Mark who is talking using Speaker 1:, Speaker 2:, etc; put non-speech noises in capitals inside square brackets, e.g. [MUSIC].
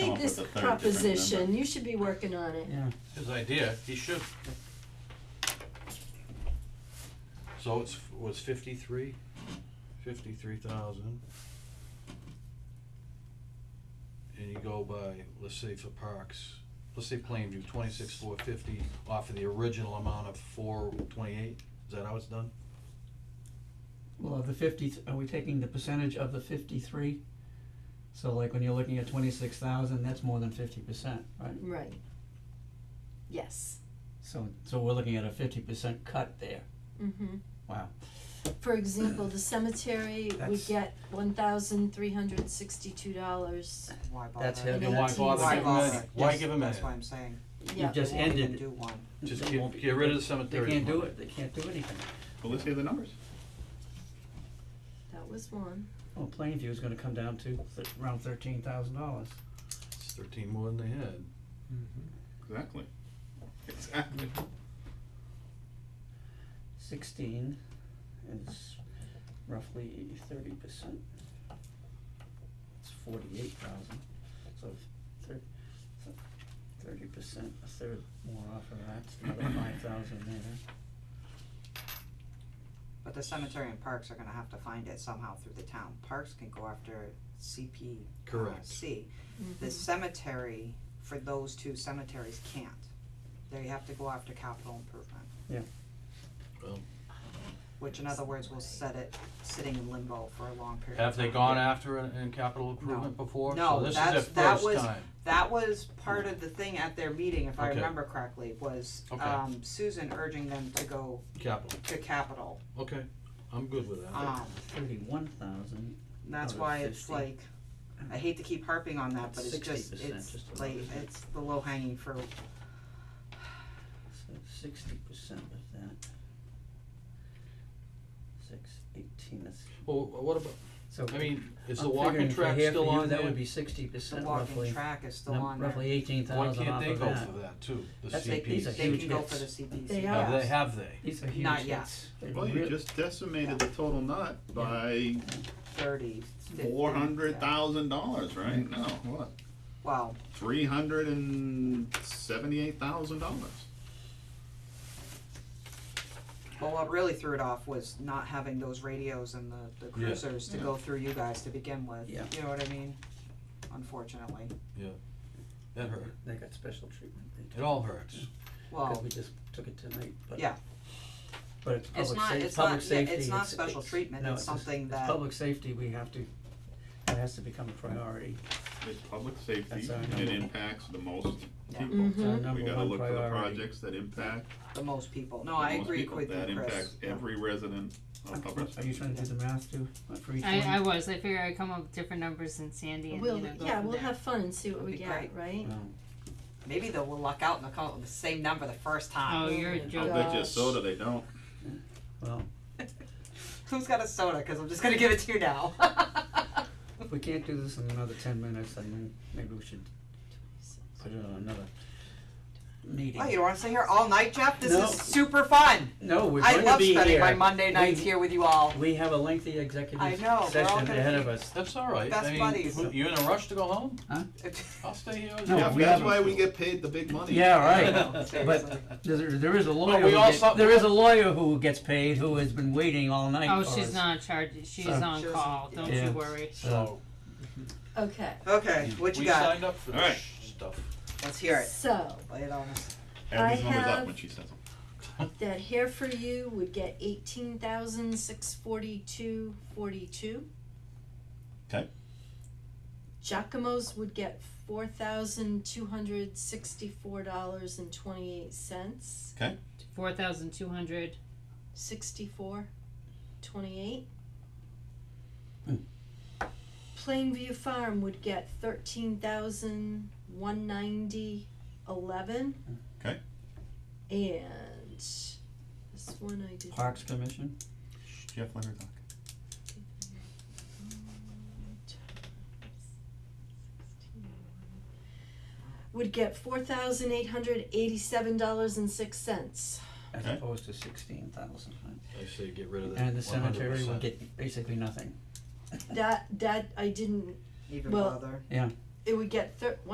Speaker 1: proposition, you should be working on it.
Speaker 2: Yeah,
Speaker 3: His idea, he should. So it's, was fifty-three, fifty-three thousand. And you go by, let's say for parks, let's say Plainview, twenty-six, four fifty, off of the original amount of four twenty-eight, is that how it's done?
Speaker 2: well, of the fifty, are we taking the percentage of the fifty-three? So like when you're looking at twenty-six thousand, that's more than fifty percent, right?
Speaker 1: Right. Yes,
Speaker 2: So, so we're looking at a fifty percent cut there,
Speaker 1: mm-hmm.
Speaker 2: wow.
Speaker 1: For example, the cemetery would
Speaker 2: That's-
Speaker 1: get one thousand three hundred sixty-two dollars,
Speaker 4: Why bother?
Speaker 2: That's
Speaker 1: And
Speaker 2: heavy.
Speaker 1: then
Speaker 3: why
Speaker 1: that's
Speaker 3: bother
Speaker 1: easy.
Speaker 3: giving him any, why
Speaker 2: Yes.
Speaker 3: give him any?
Speaker 4: That's what I'm saying.
Speaker 1: yeah.
Speaker 2: You've just
Speaker 4: They won't even
Speaker 2: ended,
Speaker 4: Do one.
Speaker 3: Just
Speaker 2: They won't
Speaker 3: get,
Speaker 2: be-
Speaker 3: get rid of the
Speaker 2: they
Speaker 3: cemetery.
Speaker 2: can't do
Speaker 3: money.
Speaker 2: it, they can't do anything.
Speaker 5: Well, let's hear the numbers.
Speaker 1: That was one.
Speaker 2: Well, Plainview is gonna come down to th- around thirteen thousand dollars.
Speaker 3: It's thirteen more than they had.
Speaker 5: Exactly. Exactly.
Speaker 2: Sixteen is roughly thirty percent. It's forty-eight thousand, so thirty percent, a third more off of that, it's
Speaker 4: [COUGHS]
Speaker 2: another five thousand there.
Speaker 4: But the cemetery and parks are gonna have to find it somehow through the town. Parks can go after CP. uh,
Speaker 3: Correct.
Speaker 4: C.
Speaker 1: Mm-hmm.
Speaker 4: The cemetery, for those two cemeteries can't. They have to go after capital improvement.
Speaker 2: Yeah.
Speaker 3: Well.
Speaker 4: Which in other words, will set it, sitting in limbo for a long period of time.
Speaker 3: Have they gone after in, in capital improvement before? So
Speaker 4: No,
Speaker 3: this is their
Speaker 4: that's- that
Speaker 3: first
Speaker 4: was-
Speaker 3: time.
Speaker 4: That was part of the thing at their meeting, if I
Speaker 3: Okay.
Speaker 4: remember correctly, was
Speaker 3: Okay.
Speaker 4: um Susan urging them to go
Speaker 3: Capital,
Speaker 4: to capital.
Speaker 3: okay, I'm good with that.
Speaker 2: Ah.
Speaker 4: Um
Speaker 2: Thirty-one thousand,
Speaker 4: and that's
Speaker 2: Out of
Speaker 4: why it's
Speaker 2: 50.
Speaker 4: like, I hate to keep harping on that, but it's just,
Speaker 2: 60%,
Speaker 4: it's
Speaker 2: just about,
Speaker 4: like,
Speaker 2: isn't it?
Speaker 4: it's the low hanging fruit.
Speaker 2: so sixty percent of that. Six, eighteen, that's,
Speaker 3: Well, what about,
Speaker 2: so.
Speaker 3: I mean, is the
Speaker 2: I'm
Speaker 3: walking
Speaker 2: figuring for
Speaker 3: track
Speaker 2: half
Speaker 3: still
Speaker 2: of you,
Speaker 3: on
Speaker 2: That
Speaker 3: there?
Speaker 2: would be sixty
Speaker 4: The
Speaker 2: percent
Speaker 4: walking
Speaker 2: roughly,
Speaker 4: track is still
Speaker 2: num-
Speaker 4: on there.
Speaker 2: roughly eighteen
Speaker 3: Why
Speaker 2: thousand
Speaker 3: can't
Speaker 2: off
Speaker 3: they
Speaker 2: of
Speaker 3: go
Speaker 2: that.
Speaker 3: for that too, the
Speaker 2: That's like
Speaker 3: CPs?
Speaker 2: these are
Speaker 4: They
Speaker 2: huge
Speaker 4: can go for the
Speaker 2: hits.
Speaker 4: CPC.
Speaker 1: They
Speaker 3: Have
Speaker 1: are.
Speaker 3: they, have they?
Speaker 2: These are huge
Speaker 4: Not yet.
Speaker 2: hits. They
Speaker 5: Well, you
Speaker 2: really-
Speaker 5: just decimated the total nut by
Speaker 4: Thirty, fifty.
Speaker 5: four hundred
Speaker 4: yeah.
Speaker 5: thousand dollars, right? No, what?
Speaker 4: Well,
Speaker 5: Three hundred and seventy-eight thousand dollars.
Speaker 4: well, what really threw it off was not having those radios and the, the
Speaker 3: Yeah.
Speaker 4: cruisers to go through you guys to begin with, you
Speaker 2: Yeah.
Speaker 4: know what I mean? Unfortunately,
Speaker 3: That hurt,
Speaker 2: They got special treatment. They
Speaker 3: it
Speaker 2: took-
Speaker 3: all hurts.
Speaker 2: Cause
Speaker 4: well,
Speaker 2: we just took it tonight, but.
Speaker 4: Oh. Yeah.
Speaker 2: But it's
Speaker 4: It's
Speaker 2: public
Speaker 4: not-
Speaker 2: safety,
Speaker 4: it's not-
Speaker 2: public
Speaker 4: yeah, it's
Speaker 2: safety.
Speaker 4: not special treatment,
Speaker 2: no, just-
Speaker 4: it's something
Speaker 2: it's
Speaker 4: that-
Speaker 2: public safety, we have to, that has to become a priority.
Speaker 5: It's public safety,
Speaker 2: That's our
Speaker 5: it
Speaker 2: number.
Speaker 5: impacts the most
Speaker 4: Yeah.
Speaker 5: people.
Speaker 2: It's
Speaker 6: Mm-hmm.
Speaker 2: our
Speaker 5: We
Speaker 2: Uh, number
Speaker 5: gotta
Speaker 2: one
Speaker 5: look for the
Speaker 2: priority.
Speaker 5: projects that impact
Speaker 4: the most people, no,
Speaker 5: the
Speaker 4: I
Speaker 5: most
Speaker 4: agree
Speaker 5: people.
Speaker 4: with you, Chris.
Speaker 5: That impacts
Speaker 4: Yeah.
Speaker 5: every resident of Hubbardston.
Speaker 2: Are you trying to do the math too, Like, for each one?
Speaker 6: I, I was. I figure I'd come up with different numbers than Sandy and
Speaker 1: We'll,
Speaker 6: you know go
Speaker 1: yeah,
Speaker 6: from
Speaker 1: we'll
Speaker 6: there.
Speaker 1: have fun and see what we
Speaker 4: Be
Speaker 1: get,
Speaker 4: great.
Speaker 1: right?
Speaker 2: No.
Speaker 4: Maybe they'll luck out and they'll come up with the same number the first
Speaker 6: Oh,
Speaker 4: time.
Speaker 6: you're a
Speaker 1: I'll
Speaker 5: I'll
Speaker 6: joke.
Speaker 5: bet you a
Speaker 1: Gosh.
Speaker 5: soda they don't.
Speaker 2: Well,
Speaker 4: Who's got a soda? Because I'm just gonna give it to you now. [LAUGHS]
Speaker 2: if we can't do this in another ten minutes, then we- maybe we should put it on another
Speaker 4: Oh, you
Speaker 2: meeting.
Speaker 4: don't want to stay here all night, Jeff? This
Speaker 2: No.
Speaker 4: is super fun.
Speaker 2: No, we're
Speaker 4: I
Speaker 2: gonna
Speaker 4: love
Speaker 2: be
Speaker 4: spending my
Speaker 2: here.
Speaker 4: Monday nights
Speaker 2: We-
Speaker 4: here with you all.
Speaker 2: We have a lengthy executive
Speaker 4: I know, we're all
Speaker 2: session
Speaker 4: gonna
Speaker 2: ahead
Speaker 4: be-
Speaker 2: of us.
Speaker 3: That's all right,
Speaker 4: Best
Speaker 3: I mean,
Speaker 4: buddies.
Speaker 3: who- you in a rush to go home?
Speaker 4: Seriously.
Speaker 3: I'll stay here.
Speaker 2: No,
Speaker 5: Yeah,
Speaker 2: we
Speaker 5: that's
Speaker 2: haven't.
Speaker 5: why we get paid the big money.
Speaker 2: Yeah, [LAUGHS]
Speaker 4: [LAUGHS]
Speaker 2: right. But- There, there is a lawyer.
Speaker 3: we
Speaker 2: who
Speaker 3: all
Speaker 2: get-
Speaker 3: saw-
Speaker 2: there is a lawyer who gets paid who has been waiting all night.
Speaker 6: Oh,
Speaker 2: for
Speaker 6: she's
Speaker 2: us.
Speaker 6: not charged. She's
Speaker 2: So-
Speaker 6: on
Speaker 4: She doesn't-
Speaker 6: call. Don't
Speaker 2: Yeah.
Speaker 6: you worry.
Speaker 2: So,
Speaker 3: So,
Speaker 1: Okay,
Speaker 4: okay, what you
Speaker 3: we
Speaker 4: got?
Speaker 3: signed up for
Speaker 5: All right.
Speaker 3: this stuff.
Speaker 4: Let's hear it.
Speaker 1: so
Speaker 4: Lay it on us.
Speaker 5: Add
Speaker 1: I
Speaker 5: these numbers
Speaker 1: have-
Speaker 5: up when she says them.
Speaker 1: that hair for you would get eighteen thousand six forty-two forty-two.
Speaker 5: 'Kay.
Speaker 1: Giacomo's would get four thousand two hundred sixty-four dollars and twenty-eight cents,
Speaker 6: Four thousand two hundred.
Speaker 1: sixty-four, twenty-eight.
Speaker 2: Hmm.
Speaker 1: Plainview Farm would get thirteen thousand one ninety eleven.
Speaker 5: 'Kay.
Speaker 1: And this one I did.
Speaker 2: Parks Commission.
Speaker 5: Shh, Jeff, let her talk.
Speaker 1: would get four thousand eight hundred eighty-seven dollars and six cents.
Speaker 2: As
Speaker 5: Okay.
Speaker 2: opposed to sixteen thousand,
Speaker 3: I say get rid of that
Speaker 2: and the cemetery will
Speaker 3: 100%.
Speaker 2: get basically nothing.
Speaker 1: That, that, I didn't,
Speaker 4: Even
Speaker 1: Well,
Speaker 4: bother.
Speaker 1: it would get thir-